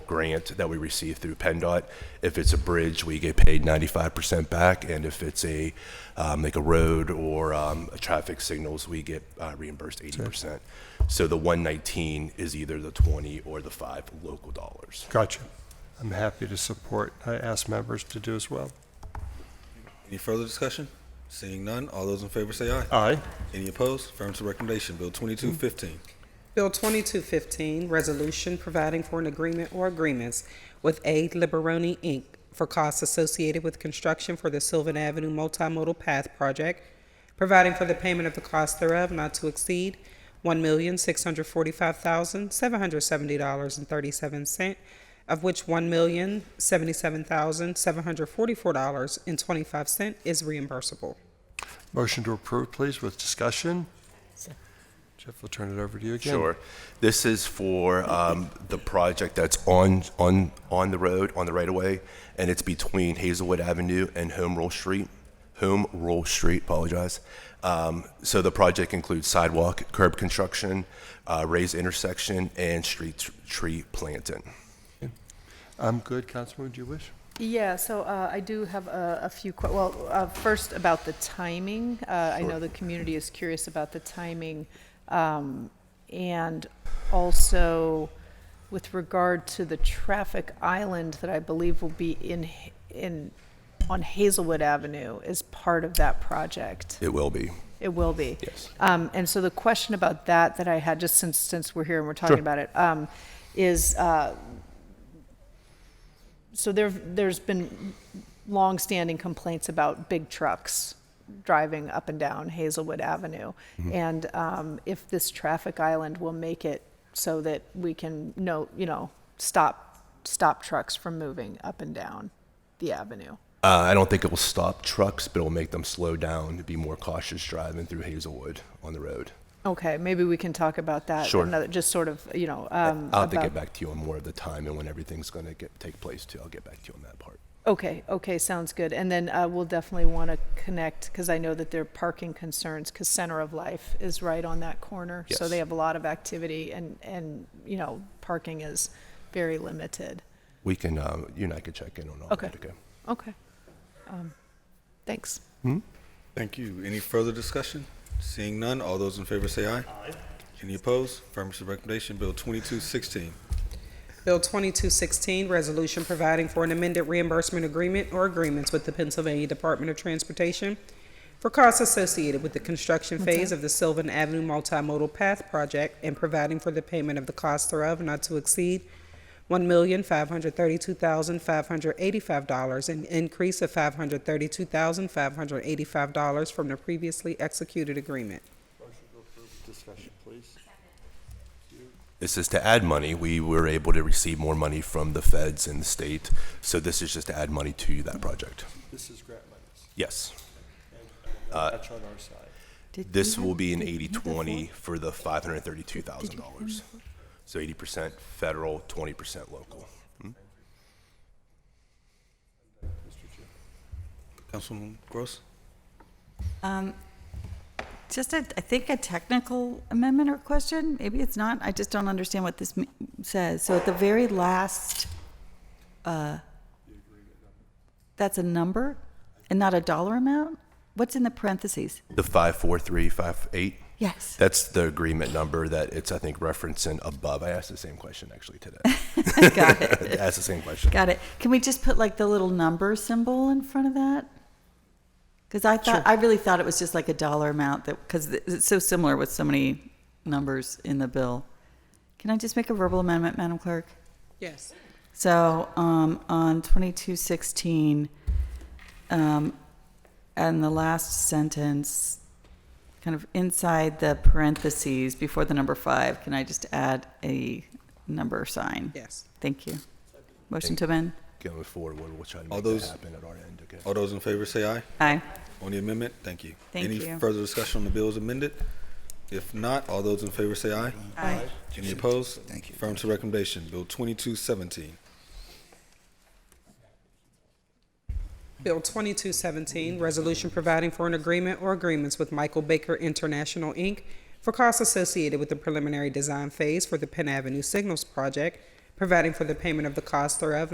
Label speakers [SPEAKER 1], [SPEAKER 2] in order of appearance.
[SPEAKER 1] grant that we receive through PennDOT. If it's a bridge, we get paid 95% back, and if it's a, um, like a road or um, a traffic signals, we get uh, reimbursed 80%. So the 119 is either the 20 or the five local dollars.
[SPEAKER 2] Gotcha. I'm happy to support. I ask members to do as well.
[SPEAKER 3] Any further discussion? Seeing none, all those in favor say aye.
[SPEAKER 2] Aye.
[SPEAKER 3] Any opposed? Affirmative recommendation, Bill 2215.
[SPEAKER 4] Bill 2215, Resolution Providing for an Agreement or Agreements with A. Liberoni, Inc. for Costs Associated with Construction for the Sylvan Avenue Multimodal Path Project, Providing for the Payment of the Cost thereof not to exceed $1,645,770.37, of which $1,077,744.25 is reimbursable.
[SPEAKER 2] Motion to approve, please, with discussion. Jeff, we'll turn it over to you again.
[SPEAKER 1] Sure. This is for um, the project that's on, on, on the road, on the right-of-way, and it's between Hazelwood Avenue and Home Rule Street, Home Rule Street, apologize. Um, So the project includes sidewalk, curb construction, uh, raised intersection, and street tr- tree planting.
[SPEAKER 2] I'm good. Councilman, do you wish?
[SPEAKER 5] Yeah, so uh, I do have a a few, que- well, uh, first about the timing. Uh, I know the community is curious about the timing. um, And also with regard to the traffic island that I believe will be in, Ha- in, on Hazelwood Avenue as part of that project.
[SPEAKER 1] It will be.
[SPEAKER 5] It will be.
[SPEAKER 1] Yes.
[SPEAKER 5] Um, and so the question about that that I had, just since since we're here and we're talking about it, um, is uh, so there there's been longstanding complaints about big trucks driving up and down Hazelwood Avenue,
[SPEAKER 1] Mm-hmm.
[SPEAKER 5] and um, if this traffic island will make it so that we can know you know stop stop trucks from moving up and down the avenue.
[SPEAKER 1] Uh, I don't think it will stop trucks, but it'll make them slow down, to be more cautious driving through Hazelwood on the road.
[SPEAKER 5] Okay, maybe we can talk about that.
[SPEAKER 1] Sure.
[SPEAKER 5] Another, just sort of, you know. Um,
[SPEAKER 1] I'll have to
[SPEAKER 5] about-
[SPEAKER 1] get back to you on more of the time and when everything's going to get, take place too. I'll get back to you on that part.
[SPEAKER 5] Okay, okay, sounds good. And then uh, we'll definitely want to connect, because I know that there are parking concerns, because Center of Life is right on that corner. So
[SPEAKER 1] Yes.
[SPEAKER 5] they have a lot of activity and, and, you know, parking is very limited.
[SPEAKER 1] We can, uh, you and I could check in on all
[SPEAKER 5] Okay.
[SPEAKER 1] that. Okay.
[SPEAKER 5] Okay. Um, Thanks.
[SPEAKER 3] Thank you. Any further discussion? Seeing none, all those in favor say aye. Aye. Any opposed? Affirmative recommendation, Bill 2216.
[SPEAKER 4] Bill 2216, Resolution Providing for an Amended Reimbursement Agreement or Agreements with the Pennsylvania Department of Transportation for costs associated with the construction phase of the Sylvan Avenue Multimodal Path Project and providing for the payment of the cost thereof not to exceed $1,532,585, an increase of $532,585 from the previously executed agreement.
[SPEAKER 2] Discussion, please.
[SPEAKER 1] This is to add money. We were able to receive more money from the feds and the state. So this is just to add money to that project.
[SPEAKER 2] This is grant monies.
[SPEAKER 1] Yes.
[SPEAKER 2] That's on our side.
[SPEAKER 1] This will be an 80 20 for the $532,000. So 80% federal, 20% local.
[SPEAKER 3] Councilman Gross?
[SPEAKER 6] Um, Just a, I think a technical amendment or question, maybe it's not, I just don't understand what this me- says. So at the very last, uh, that's a number and not a dollar amount? What's in the parentheses?
[SPEAKER 1] The 54358,
[SPEAKER 6] Yes.
[SPEAKER 1] that's the agreement number that it's, I think, referencing above. I asked the same question actually today.
[SPEAKER 6] Got it,
[SPEAKER 1] I asked the same question.
[SPEAKER 6] got it. Can we just put like the little number symbol in front of that? Because I thought, I really thought it was just like a dollar amount that, because it's so similar with so many numbers in the bill. Can I just make a verbal amendment, Madam Clerk?
[SPEAKER 4] Yes.
[SPEAKER 6] So um, on 2216, um, and the last sentence, kind of inside the parentheses before the number five, can I just add a number sign?
[SPEAKER 4] Yes.
[SPEAKER 6] Thank you. Motion to amend?
[SPEAKER 1] Going forward, we'll we'll try to
[SPEAKER 3] All
[SPEAKER 1] make that
[SPEAKER 3] those-
[SPEAKER 1] happen at our end. Okay.
[SPEAKER 3] All those in favor say aye.
[SPEAKER 6] Aye.
[SPEAKER 3] On the amendment, thank you.
[SPEAKER 6] Thank
[SPEAKER 3] Any
[SPEAKER 6] you.
[SPEAKER 3] further discussion on the bill as amended? If not, all those in favor say aye.
[SPEAKER 6] Aye.
[SPEAKER 3] Any opposed? Thank you. Affirmative recommendation, Bill 2217.
[SPEAKER 4] Bill 2217, Resolution Providing for an Agreement or Agreements with Michael Baker International, Inc. for costs associated with the preliminary design phase for the Penn Avenue Signals Project, providing for the payment of the cost thereof,